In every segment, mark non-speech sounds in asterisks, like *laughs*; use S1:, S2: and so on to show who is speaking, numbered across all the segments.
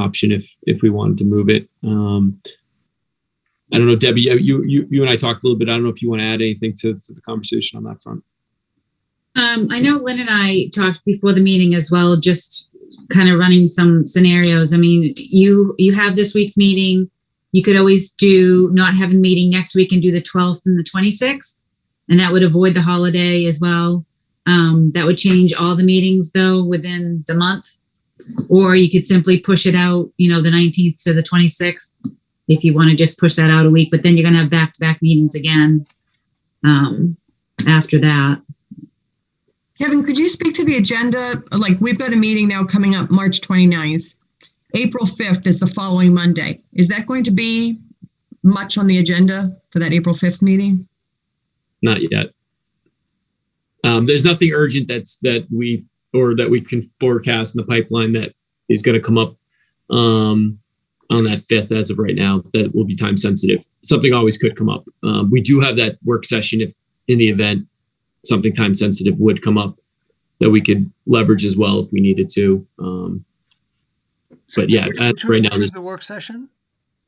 S1: option if if we wanted to move it. Um, I don't know, Debbie. You you you and I talked a little bit. I don't know if you want to add anything to, to the conversation on that front.
S2: Um, I know Lynn and I talked before the meeting as well, just kind of running some scenarios. I mean, you, you have this week's meeting. You could always do not have a meeting next week and do the twelfth and the twenty-sixth. And that would avoid the holiday as well. Um, that would change all the meetings though, within the month. Or you could simply push it out, you know, the nineteenth to the twenty-sixth. If you want to just push that out a week, but then you're gonna have back-to-back meetings again. Um, after that.
S3: Kevin, could you speak to the agenda? Like, we've got a meeting now coming up March 29th. April 5th is the following Monday. Is that going to be much on the agenda for that April 5th meeting?
S1: Not yet. Um, there's nothing urgent that's that we or that we can forecast in the pipeline that is going to come up um, on that fifth as of right now. That will be time sensitive. Something always could come up. Um, we do have that work session if in the event something time sensitive would come up that we could leverage as well if we needed to. Um,
S4: So
S1: But yeah,
S4: which-
S1: that's
S4: which-
S1: right now
S4: Which was
S1: there's- Hmm.
S4: the work session?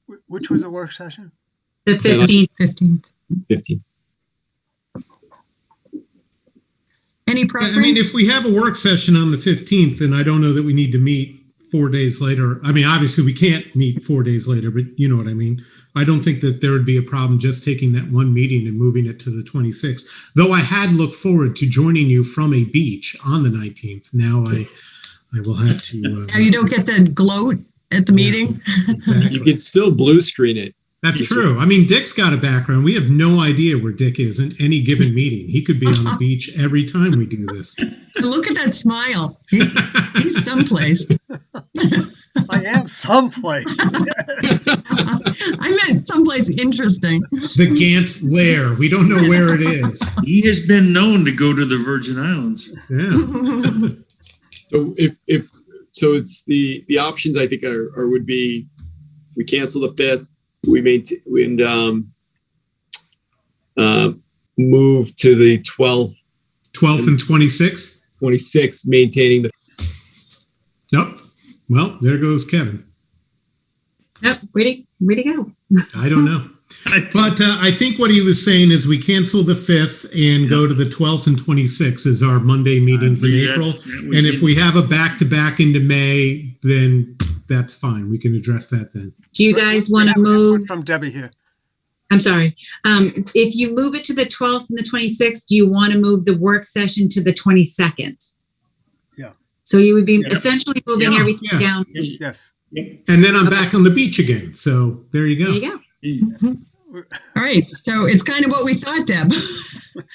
S4: Wh- Which was the work session?
S2: The
S1: Yeah, that's-
S2: fifteenth,
S3: 15th.
S1: 15.
S3: Any
S5: Yeah, I mean, if
S3: preference?
S5: we have a work session on the 15th, then I don't know that we need to meet four days later. I mean, obviously, we can't meet four days later, but you know what I mean? I don't think that there would be a problem just taking that one meeting and moving it to the 26th. Though I had looked forward to joining you from a beach on the 19th. Now I, I will have to. uh,
S3: Now, you don't get the gloat at the
S5: Yeah.
S3: meeting? *laughs*
S5: Exactly.
S1: You could still blue screen it.
S5: That's true. I mean, Dick's got a background. We have no idea where Dick is in any given meeting. He could be on
S3: *laughs*
S5: the beach every time we do this.
S3: Look at that smile. He- He's someplace. *laughs*
S4: I am someplace.
S3: I meant someplace interesting. *laughs*
S5: the Gant lair. We don't know where it is.
S6: He has been known to go to the Virgin Islands.
S5: Yeah.
S1: So if, if, so it's the, the options I think are, are would be, we cancel the fifth, we maintain, and, um, uh, move to the 12th,
S5: 12th and 26th.
S1: 26th, maintaining the,
S5: Nope. Well, there goes Kevin.
S2: yep, ready, ready to go.
S5: I don't know.
S6: I-
S5: But uh, I think what he was saying is we cancel the 5th and go to the 12th and 26th as our Monday meetings in
S6: Yeah,
S5: April.
S6: that was
S5: And if
S6: it.
S5: we have a back to back into May, then that's fine. We can address that then.
S2: Do *laughs* you guys
S4: We
S2: want
S4: have
S2: to
S4: an input
S2: move,
S4: From Debbie here.
S2: I'm sorry, um, if you move it to the twelfth and the twenty-sixth, do you want to move the work session to the twenty-second?
S4: Yeah.
S2: So you would be
S6: Yeah.
S2: essentially moving
S5: Yeah,
S2: everything
S5: yeah.
S2: down. a week.
S4: Yes.
S5: And then I'm back on the beach again. So there you
S2: There you
S5: go.
S2: go.
S3: All right, so it's kind of what we thought, Deb. *laughs*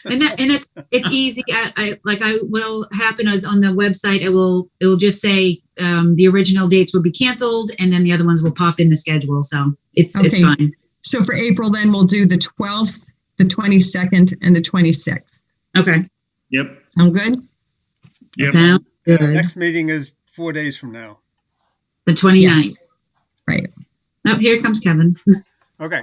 S2: And that, and it's, it's easy. I, I, like I, what'll happen is on the website, it will, it will just say, um, the original dates will be canceled and then the other ones will pop in the schedule. So it's, it's
S3: Okay.
S2: fine.
S3: So for April, then we'll do the 12th, the 22nd, and the 26th.
S2: Okay.
S6: Yep.
S3: Sound good?
S6: Yep.
S2: Sound
S4: Our
S2: good.
S4: Next meeting is four days from now.
S2: The 29th.
S3: Yes. Right.
S2: Oh, here comes Kevin.
S4: Okay,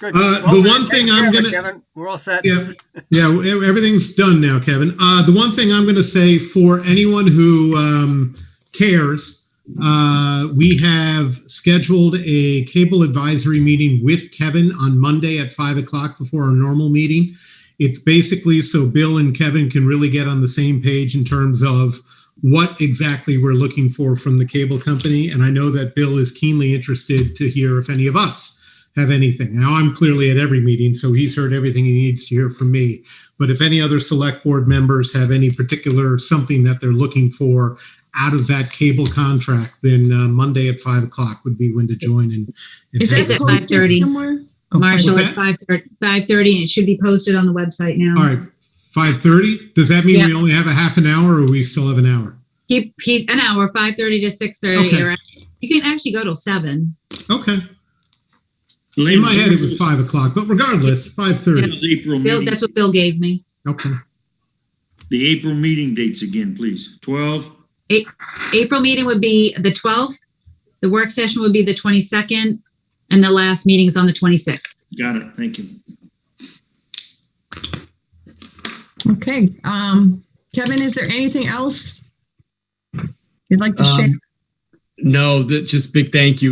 S4: good.
S5: Uh,
S4: Well,
S5: the one
S4: take
S5: thing
S4: care
S5: I'm
S4: of it,
S5: gonna-
S4: Kevin, we're all set.
S5: Yeah. Yeah, well, e- everything's done now, Kevin. Uh, the one thing I'm going to say for anyone who um, cares, uh, we have scheduled a cable advisory meeting with Kevin on Monday at five o'clock before our normal meeting. It's basically so Bill and Kevin can really get on the same page in terms of what exactly we're looking for from the cable company. And I know that Bill is keenly interested to hear if any of us have anything. Now, I'm clearly at every meeting, so he's heard everything he needs to hear from me. But if any other select board members have any particular something that they're looking for out of that cable contract, then uh, Monday at five o'clock would be when to join and. and
S3: Is
S5: have
S2: It's
S3: that
S2: at
S5: it.
S2: post-
S3: posted
S2: 5:30.
S3: somewhere? Oh,
S2: Marshall,
S5: what's
S2: it's five thirty, five thirty, and it should be posted on the website
S5: All
S2: now.
S5: right, five thirty? Does that mean
S2: Yeah.
S5: we only have a half an hour or we still have an hour?
S2: He, he's an hour, five thirty to six thirty.
S5: Okay.
S2: You can actually go till seven.
S5: Okay, in my head it was five o'clock, but regardless, five
S6: It
S5: thirty.
S6: was April
S2: Bill,
S6: meeting.
S2: that's what Bill gave me.
S5: Okay,
S6: The April meeting dates again, please. 12,
S2: April meeting would be the twelfth, the work session would be the twenty-second, and the last meeting is on the twenty-sixth.
S6: got it, thank you.
S3: Okay, um, Kevin, is there anything else you'd like to share?
S7: Um,
S1: No, that just big thank you